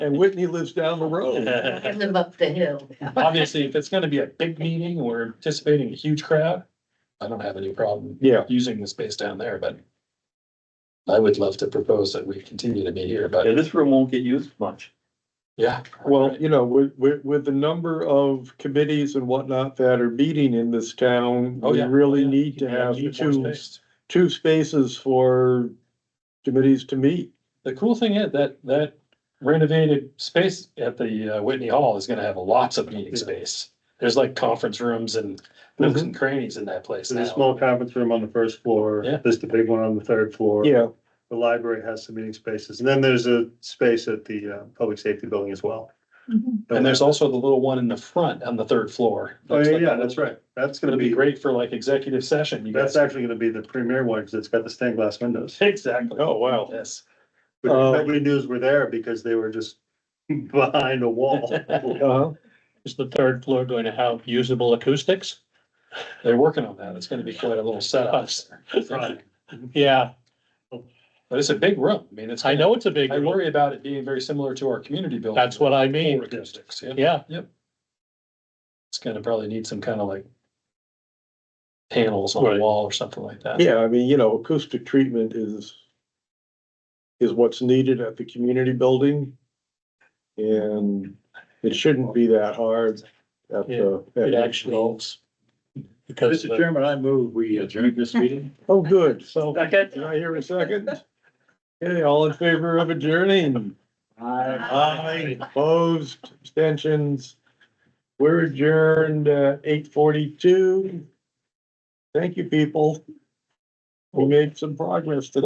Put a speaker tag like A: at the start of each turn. A: And Whitney lives down the road.
B: I live up the hill.
C: Obviously, if it's gonna be a big meeting or anticipating a huge crowd, I don't have any problem
A: Yeah,
C: using the space down there, but I would love to propose that we continue to meet here,
D: Yeah,
C: but
D: this room won't get used much.
C: yeah.
A: well, you know, with, with, with the number of committees and whatnot that are meeting in this town,
C: Oh,
A: we
C: yeah.
A: really need to
C: Yeah,
A: have
C: need more
A: two,
C: space.
A: two spaces for committees to meet.
C: The cool thing is that, that renovated space at the uh, Whitney Hall is gonna have lots of meeting space. There's like conference rooms and nooks
A: Mm-hmm.
C: and crannies in that place
E: There's a
C: now.
E: small conference room on the first floor.
C: Yeah.
E: There's the big one on the third floor.
A: Yeah,
E: The library has some meeting spaces. And then there's a space at the uh, public safety building as well.
C: And there's also the little one in the front on the third floor.
E: Oh,
C: Looks
E: yeah,
C: like a
E: yeah,
C: little-
E: that's right. That's gonna
C: It'll be
E: be,
C: great for like executive session. You
E: that's
C: guys,
E: actually gonna be the premier one because it's got the stained glass windows.
C: exactly.
A: oh, wow.
C: Yes.
E: But
A: Oh.
E: nobody knew were there because they were just behind a wall.
A: Uh-huh.
F: Is the third floor going to have usable acoustics?
C: They're working on that. It's gonna be quite a little setup.
E: Right.
F: Yeah,
C: But it's a big room. I mean, it's.
F: I know it's a big
C: I
F: room.
C: worry about it being very similar to our community building.
F: That's what I
C: Full
F: mean.
C: acoustics, yeah.
F: Yeah,
C: It's gonna probably need some kind of like panels on the
F: Right.
C: wall or something like that.
A: Yeah, I mean, you know, acoustic treatment is is what's needed at the community building. And it shouldn't be that hard at the. at
F: it
A: the-
F: actually helps. Because the-
E: Chairman, I move we adjourn this meeting.
A: Oh, good. So
D: Second?
A: Can I hear a second? Okay, all in favor of adjourning? Aye. Opposed, abstentions. We're adjourned at eight forty-two. Thank you, people. We made some progress today.